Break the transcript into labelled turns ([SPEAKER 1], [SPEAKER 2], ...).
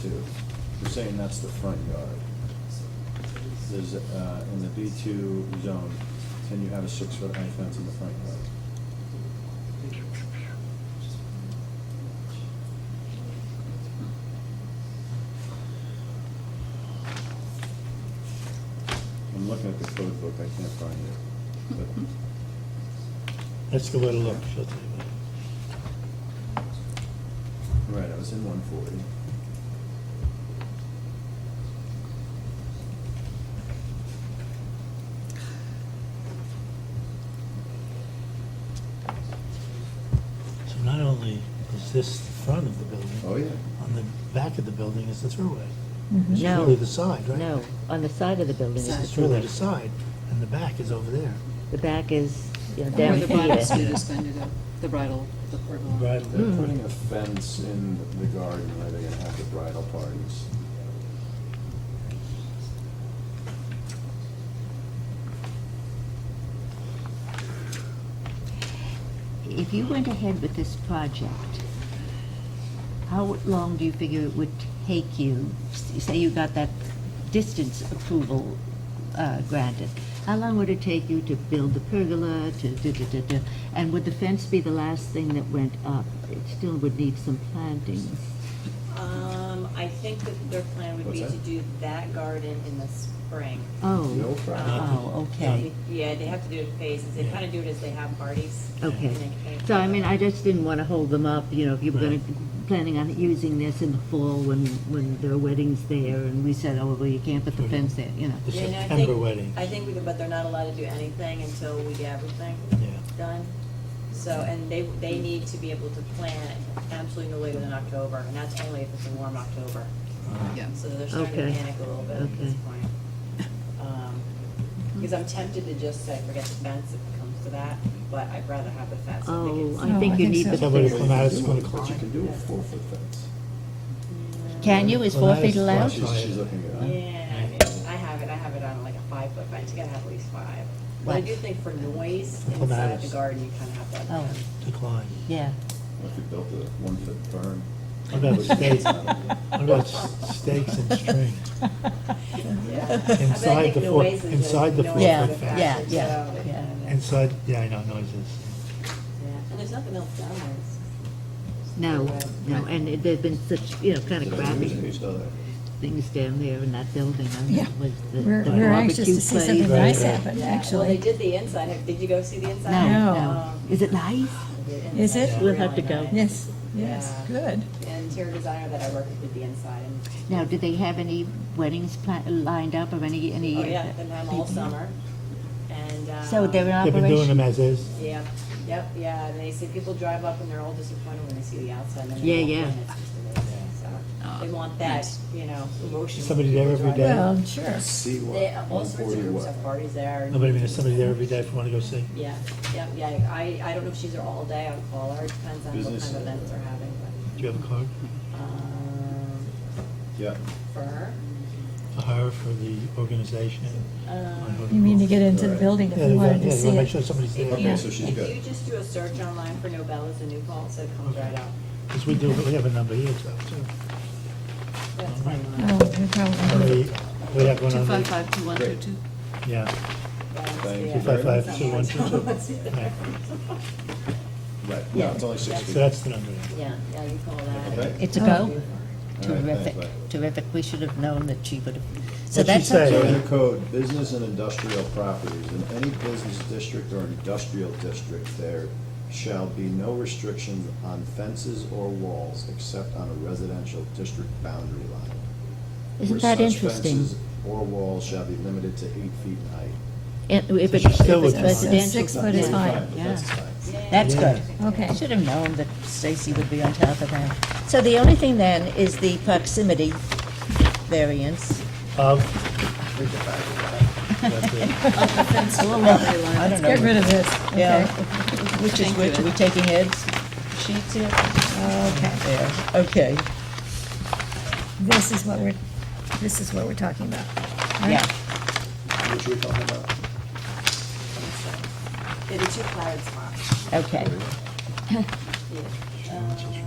[SPEAKER 1] two. You're saying that's the front yard. There's, uh, in the B two zone, can you have a six-foot high fence in the front yard? I'm looking at the code book, I can't find it. But
[SPEAKER 2] Let's go and look, she'll tell you about it.
[SPEAKER 1] Right, I was in one forty.
[SPEAKER 2] So not only is this the front of the building.
[SPEAKER 1] Oh, yeah.
[SPEAKER 2] On the back of the building is the thruway.
[SPEAKER 3] Mm-hmm.
[SPEAKER 2] It's
[SPEAKER 4] No.
[SPEAKER 2] really the side, right?
[SPEAKER 4] No, on the side of the building is
[SPEAKER 2] It's
[SPEAKER 4] the
[SPEAKER 2] really the
[SPEAKER 4] throughway.
[SPEAKER 2] side, and the back is over there.
[SPEAKER 4] The back is, you know,
[SPEAKER 5] Where
[SPEAKER 4] down
[SPEAKER 5] the bridal
[SPEAKER 4] here.
[SPEAKER 5] suite is going to go, the bridal, the bridal.
[SPEAKER 1] They're putting a fence in the garden where they're gonna have the bridal parties.
[SPEAKER 4] If you went ahead with this project, how long do you figure it would take you? s- Say you got that distance approval uh, granted. How long would it take you to build the pergola, to da, da, da, da? And would the fence be the last thing that went up? It still would need some plantings.
[SPEAKER 6] Um, I think that their plan would be
[SPEAKER 1] What's
[SPEAKER 6] to
[SPEAKER 1] that?
[SPEAKER 6] do that garden in the spring.
[SPEAKER 1] No
[SPEAKER 4] Oh,
[SPEAKER 6] Uh,
[SPEAKER 1] problem.
[SPEAKER 4] oh, okay.
[SPEAKER 6] Yeah, they have to do it in phases. They kind of do it as they have parties.
[SPEAKER 4] Okay.
[SPEAKER 6] And they kind of-
[SPEAKER 4] So, I mean, I just didn't want to hold them up, you know, if you were going
[SPEAKER 2] Right.
[SPEAKER 4] to, planning on using this in the fall when, when there are weddings there, and we said, oh, well, you can't put the
[SPEAKER 2] Right.
[SPEAKER 4] fence there, you know.
[SPEAKER 2] The
[SPEAKER 6] Yeah, and I think-
[SPEAKER 2] September wedding.
[SPEAKER 6] I think we could, but they're not allowed to do anything until we get everything
[SPEAKER 2] Yeah.
[SPEAKER 6] done. So, and they, they need to be able to plant absolutely no later than October, and that's only if it's a warm October.
[SPEAKER 5] Yeah.
[SPEAKER 6] So they're starting to
[SPEAKER 4] Okay.
[SPEAKER 6] panic a little bit at this
[SPEAKER 4] Okay.
[SPEAKER 6] point. Um, Because I'm tempted to just say, forget the fence if it comes to that, but I'd rather have the fence. think
[SPEAKER 4] Oh,
[SPEAKER 6] it's-
[SPEAKER 4] I think you need the
[SPEAKER 2] Somebody
[SPEAKER 4] fence.
[SPEAKER 2] will not, it's gonna
[SPEAKER 1] But you
[SPEAKER 2] climb.
[SPEAKER 1] can do a four-foot fence.
[SPEAKER 4] Can you, is
[SPEAKER 2] Well,
[SPEAKER 4] four
[SPEAKER 2] that
[SPEAKER 4] feet
[SPEAKER 2] is
[SPEAKER 4] allowed?
[SPEAKER 2] fine.
[SPEAKER 1] She's, she's looking at it.
[SPEAKER 6] Yeah, I mean, I have it, I have it on like a five foot fence, you gotta have at least five. But I
[SPEAKER 4] Right.
[SPEAKER 6] do think for noise
[SPEAKER 2] Well,
[SPEAKER 6] inside the
[SPEAKER 2] that's-
[SPEAKER 6] garden, you kinda have to have.
[SPEAKER 4] Oh,
[SPEAKER 6] a fence.
[SPEAKER 2] Decline.
[SPEAKER 4] yeah.
[SPEAKER 1] What If you built a one-foot berm.
[SPEAKER 4] Oh,
[SPEAKER 2] What about stakes? What about s- stakes and string? Inside the four- inside the four
[SPEAKER 4] Yeah,
[SPEAKER 2] foot fence.
[SPEAKER 4] yeah, yeah, yeah.
[SPEAKER 2] Inside, yeah, I know, noises.
[SPEAKER 6] And there's nothing else down there. It's-
[SPEAKER 4] No,
[SPEAKER 6] Right.
[SPEAKER 4] no, and it- there've been such, you know, kind of crappy
[SPEAKER 1] Who's other?
[SPEAKER 4] things down there in that building, I mean,
[SPEAKER 3] Yeah.
[SPEAKER 4] it was the
[SPEAKER 3] We're,
[SPEAKER 4] the
[SPEAKER 3] we're anxious to
[SPEAKER 4] barbecue
[SPEAKER 3] see
[SPEAKER 4] place.
[SPEAKER 3] something
[SPEAKER 2] Right,
[SPEAKER 3] nice
[SPEAKER 2] right.
[SPEAKER 3] happen,
[SPEAKER 6] Yeah, Well, they
[SPEAKER 3] actually.
[SPEAKER 6] did the inside, Have- did you go see the inside? Um,
[SPEAKER 4] No,
[SPEAKER 3] No.
[SPEAKER 4] no. Is it nice?
[SPEAKER 3] Is it?
[SPEAKER 2] We'll
[SPEAKER 4] have to go.
[SPEAKER 3] Yes, yes, good.
[SPEAKER 6] The interior designer that I work with did the inside, and,
[SPEAKER 4] Now, do they have any weddings pla- lined up or any, any?
[SPEAKER 6] oh yeah, them have all summer, and, um.
[SPEAKER 4] So they're in
[SPEAKER 2] They've been doing them
[SPEAKER 4] operation?
[SPEAKER 2] as is.
[SPEAKER 6] Yep, yep, yeah, and they say people drive up and they're all disappointed when they see the outside, and then
[SPEAKER 4] Yeah,
[SPEAKER 6] they walk in,
[SPEAKER 4] yeah. Oh,
[SPEAKER 6] it's just amazing, so. They want that, you know, emotion.
[SPEAKER 2] Somebody
[SPEAKER 6] when
[SPEAKER 2] there
[SPEAKER 6] people
[SPEAKER 2] every
[SPEAKER 6] drive
[SPEAKER 2] day?
[SPEAKER 6] up.
[SPEAKER 3] Well, sure.
[SPEAKER 1] See what?
[SPEAKER 6] They, all sorts of
[SPEAKER 1] 140
[SPEAKER 6] groups
[SPEAKER 1] what?
[SPEAKER 6] have parties there. and-
[SPEAKER 2] Nobody, I mean, there's somebody there every day if you wanna go see.
[SPEAKER 6] Yeah, yeah, yeah, I, I don't know if she's there all day on call, or it depends on what kind
[SPEAKER 1] Business.
[SPEAKER 6] of events they're having,
[SPEAKER 2] Do you have a card
[SPEAKER 6] but, um,
[SPEAKER 1] Yeah.
[SPEAKER 6] for her.
[SPEAKER 2] for her, for the organization?
[SPEAKER 4] Uh,
[SPEAKER 6] Um,
[SPEAKER 3] You mean to get into the building if
[SPEAKER 2] Yeah,
[SPEAKER 3] you
[SPEAKER 2] you wanna-
[SPEAKER 3] wanted
[SPEAKER 2] yeah,
[SPEAKER 3] to
[SPEAKER 2] you
[SPEAKER 3] see
[SPEAKER 2] wanna make
[SPEAKER 3] it.
[SPEAKER 2] sure somebody's there.
[SPEAKER 6] If
[SPEAKER 1] Okay,
[SPEAKER 3] Yeah.
[SPEAKER 1] so she's
[SPEAKER 6] you, if you
[SPEAKER 1] good.
[SPEAKER 6] just do a search online for Novella's in New Paltz, it comes right up.
[SPEAKER 2] Because we do, we have a number here, so, too.
[SPEAKER 6] That's my mind.
[SPEAKER 3] Oh, you probably.
[SPEAKER 2] Somebody- We have one on the,
[SPEAKER 5] 255-2122.
[SPEAKER 2] yeah.
[SPEAKER 1] Thank
[SPEAKER 6] Yeah.
[SPEAKER 1] you very
[SPEAKER 2] Five,
[SPEAKER 1] much.
[SPEAKER 2] five, two, one, two, two. Right.
[SPEAKER 1] Right, no, it's only six
[SPEAKER 2] So
[SPEAKER 1] feet.
[SPEAKER 2] that's the number.
[SPEAKER 6] Yeah, yeah, you call that.
[SPEAKER 1] Okay?
[SPEAKER 4] It's a
[SPEAKER 2] Oh.
[SPEAKER 4] go?
[SPEAKER 1] All right, thanks,
[SPEAKER 4] Terrific,
[SPEAKER 1] bye.
[SPEAKER 4] terrific. We should have known that she would have. So
[SPEAKER 2] What'd she say?
[SPEAKER 4] that's
[SPEAKER 1] So in the code, business and industrial properties, in any business district or industrial district, there shall be no restrictions on fences or walls except on a residential district boundary line.
[SPEAKER 4] Isn't
[SPEAKER 1] where
[SPEAKER 4] that
[SPEAKER 1] such
[SPEAKER 4] interesting?
[SPEAKER 1] fences Or walls shall be limited to eight feet in height.
[SPEAKER 4] If if
[SPEAKER 2] So
[SPEAKER 4] it-
[SPEAKER 2] she
[SPEAKER 4] if
[SPEAKER 2] still
[SPEAKER 4] it's
[SPEAKER 2] would- Six
[SPEAKER 4] residential.
[SPEAKER 3] foot is
[SPEAKER 4] yeah.
[SPEAKER 3] fine.
[SPEAKER 1] but that's
[SPEAKER 4] Yeah.
[SPEAKER 1] fine.
[SPEAKER 4] That's
[SPEAKER 2] Yeah.
[SPEAKER 4] good.
[SPEAKER 3] Okay.
[SPEAKER 4] I should have known that Stacy would be on top of that. So the only thing then is the proximity variance.
[SPEAKER 2] Of,
[SPEAKER 1] Think about it.
[SPEAKER 2] that's it.
[SPEAKER 4] I don't
[SPEAKER 3] Get
[SPEAKER 4] know,
[SPEAKER 3] rid of this,
[SPEAKER 4] Yeah.
[SPEAKER 3] okay?
[SPEAKER 4] which is which, are we taking heads, sheets here?
[SPEAKER 3] Okay.
[SPEAKER 4] There, okay,
[SPEAKER 3] This is what we're, this is what we're talking about. right?
[SPEAKER 4] yeah.
[SPEAKER 1] Which we're talking about.
[SPEAKER 6] Yeah, the two cloud spots.
[SPEAKER 4] Okay.
[SPEAKER 6] Yeah. Um, uh,